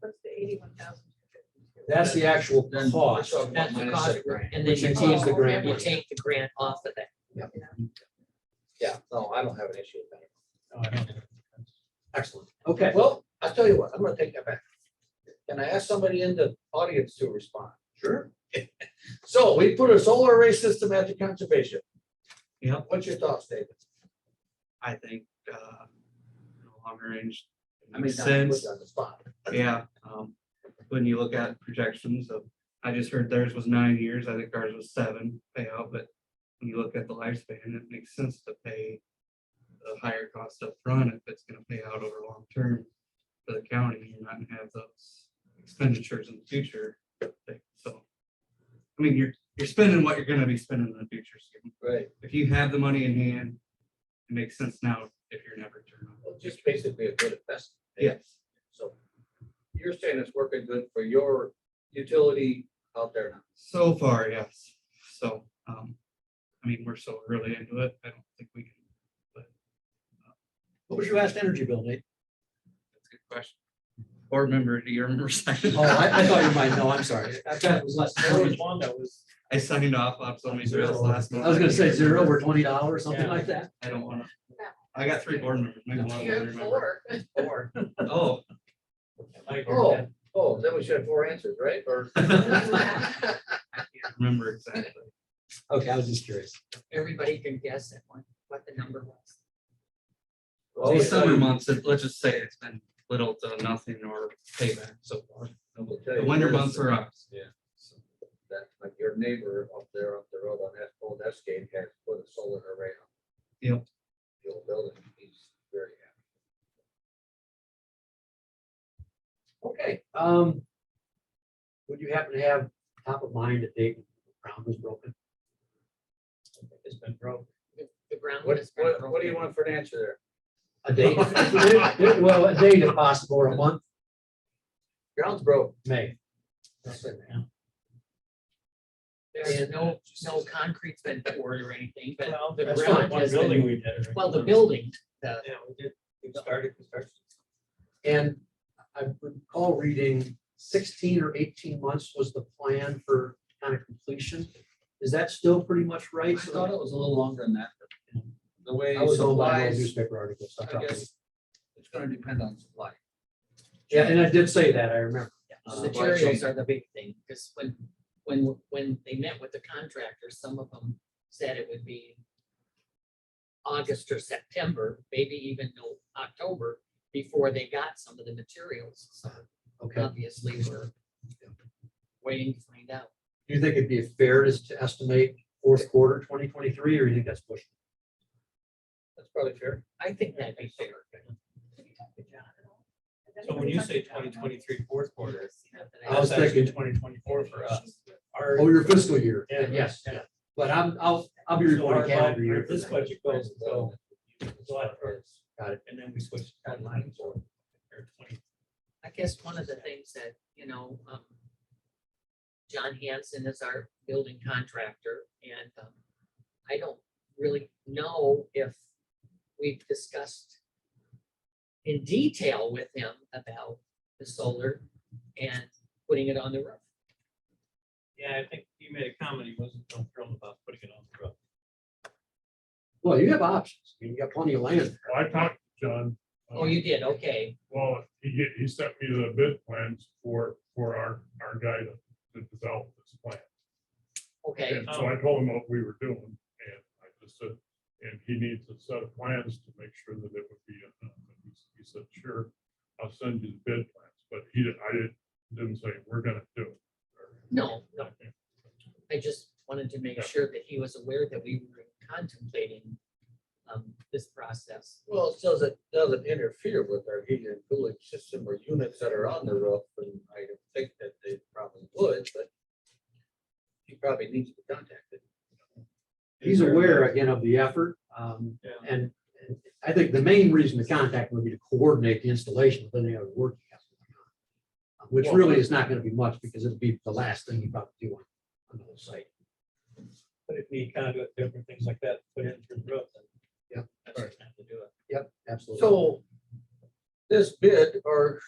What's the eighty-one thousand? That's the actual Then cost. we're talking about That's the minus cost. the grant. And then Which you includes take, the grant. you take the grant off of that. Yeah, no, I don't have an issue with that. Excellent. Okay. Well, I'll tell you what, I'm gonna take that back. Can I ask somebody in the audience to respond? Sure. So we put a solar array system at the conservation. Yeah. What's your thoughts, David? I think, uh, you know, longer range, I mean, Makes not to put sense. you On the spot. yeah. um, When you look at projections of, I just heard theirs was nine years, I think ours was seven payout, but when you look at the lifespan, it makes sense to pay the higher cost up front if it's gonna pay out over long term for the county, you're not gonna have those expenditures in the future. So, I mean, you're, you're spending what you're gonna be spending in the future, so Right, if you have the money in hand, it makes sense now if you're never turned on. well, just basically a good investment. Yes, So you're saying it's working good for your utility out there now? so far, yes. So, um, I mean, we're so early into it. I don't think we can, What was your last energy bill, Nate? that's a good question. Board member, do you remember signing? Oh, I, I thought you might know, I'm sorry. I thought it was less. There was one that was, I signed off on so many zeros last month. I was gonna say zero or twenty dollars, something Yeah. like that. I don't wanna. I got three board members. maybe one of them remember. Four. four. Oh, Like, Oh, oh, then we should have four answers, right? Or? I can't remember exactly. Okay, I was just curious. Everybody can guess at one, what the number was. The summer months, it- let's just say it's been little to nothing or payback so far. The winter months are up. So That, like your neighbor up there, up the road on that old Escape has put a solar array on. Yep. The old building, he's very happy. Okay, Um, would you happen to have top of mind that Dave Brown was broken? It's been broke. The ground what, is. what, what do you want for an answer there? A date? Well, a date if possible, or a month, Ground's broke. May. There's no, no concrete's been poured or anything, but, Well, the That's ground, fine. one building we did. right? well, the building, the, Yeah, we did, we started construction. And I recall reading sixteen or eighteen months was the plan for kind of completion. Is that still pretty much right? it was a little longer than that. The way I was told by an old newspaper article. so I I probably- guess it's gonna depend on supply. Yeah, and I did say that, I remember. the Uh, supply chain. materials are the big thing, because when, when, when they met with the contractors, some of them said it would be August or September, maybe even no- October, before they got some of the materials, so Uh, Okay. obviously we're waiting to find out. Do you think it'd be fair to to estimate fourth quarter twenty twenty-three, or you think that's pushing? That's probably fair. I think that'd be fair. So when you say 2023 fourth quarter, I was that's actually thinking- twenty twenty-four for us. Our- Oh, your fiscal year? Yeah, Yes, yeah. but I'm, I'll, I'll be So our reporting calendar bu- year. our- for This that. budget goes until July first. Got it. And then we switch to online for or twenty. I guess one of the things that, you know, um, John Hanson is our building contractor and, um, I don't really know if we've discussed in detail with him about the solar and putting it on the roof. Yeah, I think you made a comment, he wasn't so thrilled about putting it on the road. Well, you have options. You got plenty of land. Well, I talked to John. uh, Oh, you did, okay. Well, he, get- he sent me the bid plans for, for our, our guy to, to develop this plan. Okay, um, And so I told him what we were doing, and I just said, and he needs a set of plans to make sure that it would be enough. And he s- He said, sure, I'll send you the bid plans, but he didn't, I didn't, didn't say, we're gonna do it. No, no. I just wanted to make Yeah. sure that he was aware that we were contemplating, um, this process. Well, it says it doesn't interfere with our heating and cooling system or units that are on the roof, and I don't think that they probably would, but he probably needs to be contacted. He's aware again of the effort. Um, Yeah. and and I think the main reason to contact would be to coordinate the installation with any other work. he has going on, Which Well- really is not gonna be much because it'll be the last thing you probably do on, on the whole site. But if we kind of do different things like that, put in through the roof, then. Yeah. That's the time to do it. Yep, absolutely. So this bid, or